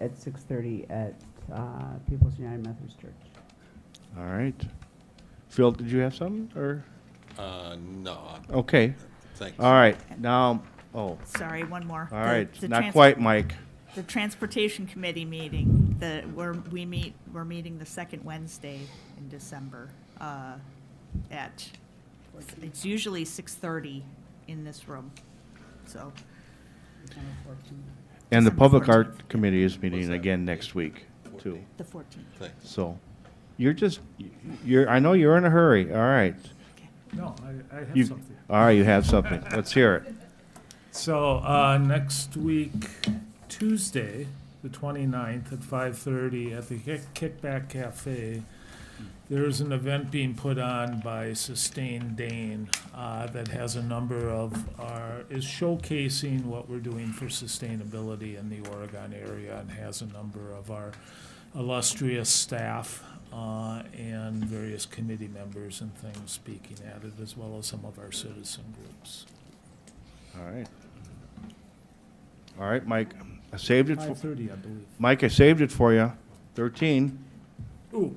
at 6:30 at uh, People's United Methodist Church. All right. Phil, did you have something, or? Uh, no, Okay, thanks. all right, now, oh, all Sorry, one more. The- right, the not trans- quite, Mike. The Transportation Committee meeting, the, we're, we meet, we're meeting the second Wednesday in December, uh, at, it's usually six-thirty in this room, so, And the December Public 14th. Art Committee is meeting that? again next week, too, the fourteenth. Thanks. so. You're just, you're, I know you're in a hurry, all right. No, I, I have You- something. All right, you have something, let's hear it. So, uh, next week, Tuesday, the 29th at five-thirty at the Kick- Kickback Cafe, there's an event being put on by Sustain Dane, uh, that has a number of our, is showcasing what we're doing for sustainability in the Oregon area and has a number of our illustrious staff, uh, and various committee members and things speaking at it, as well as some of our citizen groups. All right. All right, Mike, I saved it, for Five thirty, I believe. Mike, I saved it for you. Thirteen, Ooh,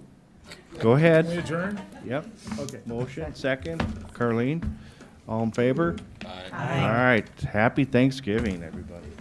go can we ahead. adjourn? Yep, Okay. motion, second. Carleen, all in favor? Bye. All right, happy Thanksgiving, everybody.